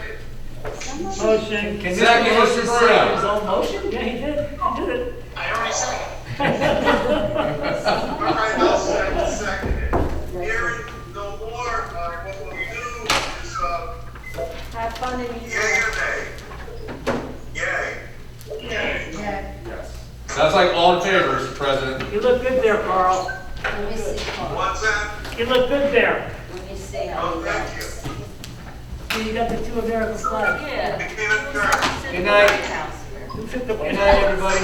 Motion. Second, Mr. Bruno. His own motion? Yeah, he did. I did it. I already said it. All right, I'll second, second it. Hearing no more, uh, what we'll do is, uh, Have fun in New yay York. or nay? Yay. Yay. Yeah. That's like all in favor, Mr. President. You look good there, Carl. Let me see, Carl. What's that? You look good there. Let me see how Oh, he thank looks. you. You got the two American flags. Yeah. Begin adjourned. Sit in the night. White House. Who took the- Good night, everybody.